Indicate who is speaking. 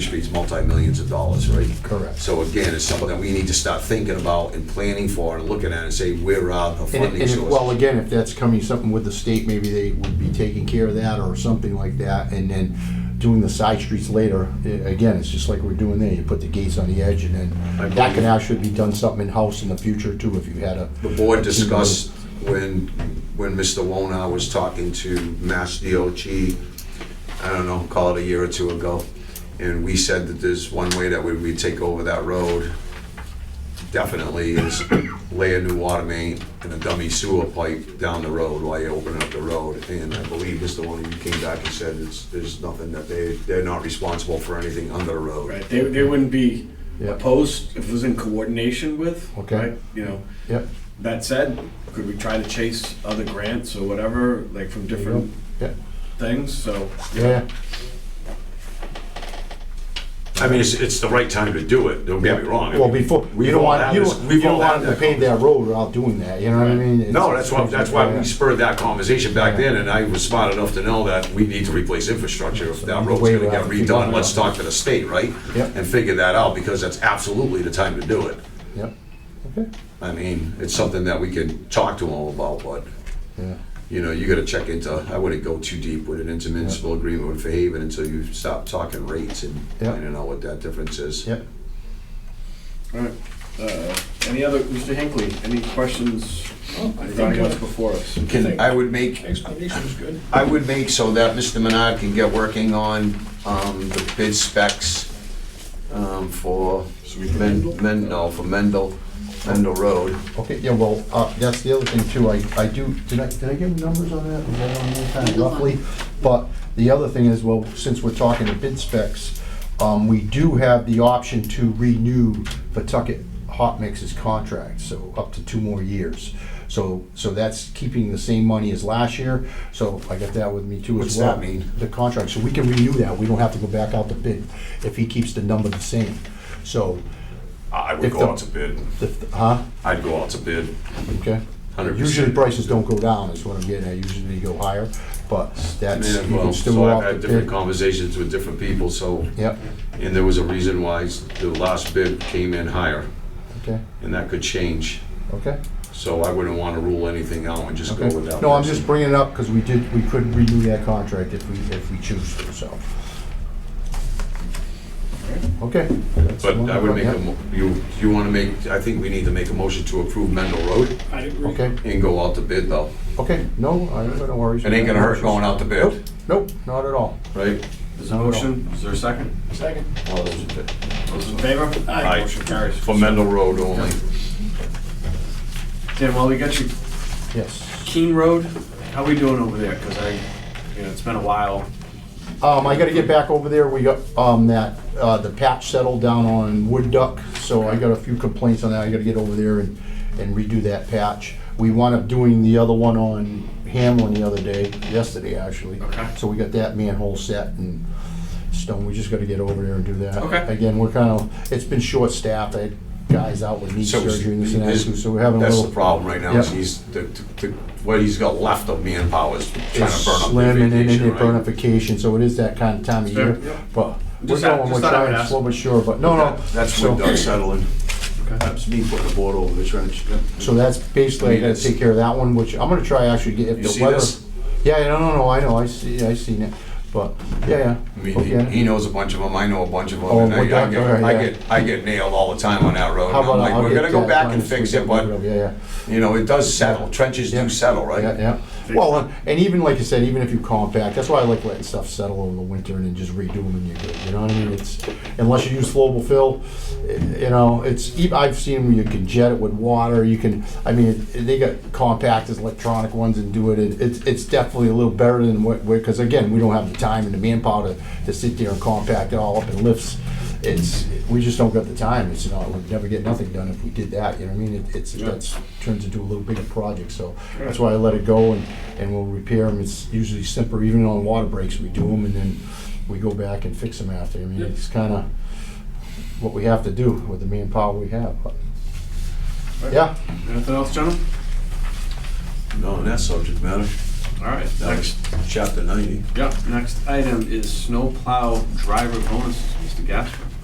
Speaker 1: Street's multi-millions of dollars, right?
Speaker 2: Correct.
Speaker 1: So again, it's something that we need to start thinking about and planning for and looking at and say, where are the
Speaker 2: And, and
Speaker 1: funding
Speaker 2: if- well,
Speaker 1: sources?
Speaker 2: again, if that's coming something with the state, maybe they would be taking care of that or something like that, and then doing the side streets later. I- Again, it's just like we're doing there, you put the gates on the edge, and
Speaker 1: I
Speaker 2: then that
Speaker 1: believe-
Speaker 2: can actually be done something in-house in the future too, if you had a.
Speaker 1: The board discussed when, when Mr. Wona was talking to Mass DOT, I don't know, call it a year or two ago, and we said that there's one way that we would take over that road, definitely is lay a new water main and a dummy sewer pipe down the road while you open up the road. And I believe Mr. Wona, you came back and said it's, there's nothing that they, they're not responsible for anything under the road.
Speaker 3: Right, they, they wouldn't be
Speaker 2: Yeah.
Speaker 3: opposed if it was in coordination with.
Speaker 2: Okay.
Speaker 3: right? You know,
Speaker 2: Yep,
Speaker 3: that said, could we try to chase other grants or whatever, like from different
Speaker 2: yep,
Speaker 3: things, so.
Speaker 2: yeah,
Speaker 4: I mean, it's, it's the right time to do it, don't get me
Speaker 1: Yeah.
Speaker 4: wrong. I
Speaker 2: well,
Speaker 4: mean,
Speaker 2: before,
Speaker 4: we've
Speaker 2: you don't
Speaker 4: all
Speaker 2: want,
Speaker 4: had
Speaker 2: you
Speaker 4: this-
Speaker 2: don't,
Speaker 4: we've
Speaker 2: you don't
Speaker 4: all
Speaker 2: want
Speaker 4: had
Speaker 2: them
Speaker 4: that
Speaker 2: to pave that road without doing that, you know what I mean? It's-
Speaker 4: No, that's why, that's why we spurred that conversation back
Speaker 2: Yeah.
Speaker 4: then, and I was smart enough to know that we need to replace infrastructure. If that
Speaker 2: either
Speaker 4: road's
Speaker 2: way,
Speaker 4: gonna
Speaker 2: we'll
Speaker 4: get
Speaker 2: have to figure
Speaker 4: redone,
Speaker 2: it
Speaker 4: let's
Speaker 2: out.
Speaker 4: talk to the state, right?
Speaker 2: Yep.
Speaker 4: And figure that out, because that's absolutely the time to do it.
Speaker 2: Yep, okay,
Speaker 1: I mean, it's something that we can talk to them about, but
Speaker 2: yeah,
Speaker 1: you know, you gotta check into, I wouldn't go too deep with an intermunicipal agreement with Fairhaven until you stop talking rates and
Speaker 2: Yeah.
Speaker 1: finding out what that difference is.
Speaker 2: yep.
Speaker 3: Alright, uh, any other, Mr. Hinckley, any questions regarding what's before us?
Speaker 1: Can, I would make,
Speaker 3: Explanation is good.
Speaker 1: I would make so that Mr. Menard can get working on, um, the bid specs, um, for Men, Men, no, for Mendel, Mendel Road.
Speaker 2: Okay, yeah, well, uh, that's the other thing too, I, I do, did I, did I give numbers on that? Was that on there kind of roughly? But the other thing is, well, since we're talking to bid specs, um, we do have the option to renew Pawtucket Hot Mix's contract, so up to two more years. So, so that's keeping the same money as last year, so I got that with me too as
Speaker 1: What's
Speaker 2: well.
Speaker 1: that mean?
Speaker 2: The contract, so we can renew that, we don't have to go back out to bid if he keeps the number the same. So,
Speaker 4: I
Speaker 2: If
Speaker 4: would
Speaker 2: the-
Speaker 4: go out to bid,
Speaker 2: if, huh?
Speaker 4: I'd go out to bid.
Speaker 2: Okay.
Speaker 4: 100%.
Speaker 2: Usually prices don't go down, is what I'm getting at, usually they go higher, but that's, you
Speaker 4: And,
Speaker 2: can
Speaker 4: well,
Speaker 2: still
Speaker 4: so
Speaker 2: go
Speaker 4: I've
Speaker 2: off
Speaker 4: had
Speaker 2: the
Speaker 4: different
Speaker 2: bid.
Speaker 4: conversations with different people, so,
Speaker 2: Yep,
Speaker 4: and there was a reason why the last bid came in higher,
Speaker 2: okay,
Speaker 4: and that could change.
Speaker 2: okay,
Speaker 4: So I wouldn't wanna rule anything out and just go with
Speaker 2: okay.
Speaker 4: that.
Speaker 2: No, I'm
Speaker 4: person.
Speaker 2: just bringing it up, because we did, we could renew that contract if we, if we choose to, so. Okay. that's the
Speaker 4: But
Speaker 2: one
Speaker 4: I would
Speaker 2: brought
Speaker 4: make a,
Speaker 2: up.
Speaker 4: mo- you, you wanna make, I think we need to make a motion to approve Mendel Road
Speaker 3: I agree.
Speaker 2: Okay,
Speaker 4: and go out to bid though.
Speaker 2: okay, no, I don't no worries.
Speaker 1: It ain't gonna hurt going out to bid,
Speaker 2: Nope, not at all.
Speaker 1: right?
Speaker 3: There's a motion, is there a second? Second.
Speaker 1: All those in favor?
Speaker 3: Those in favor?
Speaker 4: Aye.
Speaker 3: Motion carries.
Speaker 4: For Mendel Road only.
Speaker 3: Dan, while we got you
Speaker 2: Yes.
Speaker 3: Keene Road, how we doing over there? Because I, you know, it's been a while.
Speaker 2: Um, I gotta get back over there, we got, um, that, uh, the patch settled down on Wood Duck, so I got a few complaints on that, I gotta get over there and, and redo that patch. We wound up doing the other one on Hamlin the other day, yesterday actually.
Speaker 3: Okay.
Speaker 2: So we got that manhole set and stone, we just gotta get over there and do that.
Speaker 3: Okay.
Speaker 2: Again, we're kinda, it's been short-staffed, I had guys out with knee
Speaker 1: So it's-
Speaker 2: surgery and this and that,
Speaker 1: it's-
Speaker 2: too, so we're having a
Speaker 1: That's the
Speaker 2: little.
Speaker 1: problem right now, is
Speaker 2: Yeah.
Speaker 1: he's, the, the, what he's got left of manpower is trying
Speaker 2: It's
Speaker 1: to burn up their
Speaker 2: slim and then
Speaker 1: vacation,
Speaker 2: they burn
Speaker 1: right?
Speaker 2: up vacation, so it is that kind of time of
Speaker 3: Fair,
Speaker 2: year,
Speaker 3: yeah.
Speaker 2: but we're
Speaker 3: Just thought-
Speaker 2: going,
Speaker 3: just
Speaker 2: we're
Speaker 3: thought I would
Speaker 2: trying
Speaker 3: ask.
Speaker 2: slow but sure, but no, no.
Speaker 1: That's
Speaker 2: so-
Speaker 1: when Doug's settling.
Speaker 3: Okay.
Speaker 1: That's me putting the board over the trench.
Speaker 2: So that's basically, I gotta take care of that one, which I'm gonna try actually get, if
Speaker 1: You see
Speaker 2: the weather.
Speaker 1: this?
Speaker 2: Yeah, yeah, no, no, no, I know, I see, I seen it, but, yeah,
Speaker 1: I
Speaker 2: yeah.
Speaker 1: mean, he-
Speaker 2: Okay.
Speaker 1: he knows a bunch of them, I know a bunch of them,
Speaker 2: Oh,
Speaker 1: and I
Speaker 2: well,
Speaker 1: I
Speaker 2: that-
Speaker 1: get,
Speaker 2: okay,
Speaker 1: I
Speaker 2: yeah.
Speaker 1: get, I get nailed all the time on that road. and
Speaker 2: How
Speaker 1: I'm
Speaker 2: about,
Speaker 1: like,
Speaker 2: I'll
Speaker 1: we're
Speaker 2: get
Speaker 1: gonna go
Speaker 2: that
Speaker 1: back
Speaker 2: done
Speaker 1: and
Speaker 2: this
Speaker 1: fix
Speaker 2: week,
Speaker 1: it,
Speaker 2: I'll get
Speaker 1: but,
Speaker 2: Yeah, yeah.
Speaker 1: you know, it does settle, trenches
Speaker 2: Yeah.
Speaker 1: do settle,
Speaker 2: Yeah,
Speaker 1: right?
Speaker 2: yeah. Well, and- and even like I said, even if you compact, that's why I like letting stuff settle over the winter and then just redo them and you're good. You know what I mean? It's unless you use flowable fill, eh, you know, it's. ev- I've seen where you can jet it with water. You can. I mean, it- they got compact as electronic ones and do it. It- It's it's definitely a little better than what because again we don't have the time and the manpower to, to sit there and compact it all up in lifts. It's we just don't got the time. It's not we'd never get nothing done if we did that. You know what I mean? It, it's
Speaker 3: Yeah.
Speaker 2: that's turns into a little bigger project, so that's why I let it go and, and we'll repair them. It's usually simpler, even on water breaks, we do them and then we go back and fix them after. I mean, it's kinda what we have to do with the manpower we have, but. Yeah,
Speaker 3: Anything else, gentlemen?
Speaker 1: No, on that subject matter.
Speaker 3: All right,
Speaker 4: That was
Speaker 3: next,
Speaker 4: chapter ninety.
Speaker 3: yeah, next item is snowplow driver bonuses, Mr. Gasper.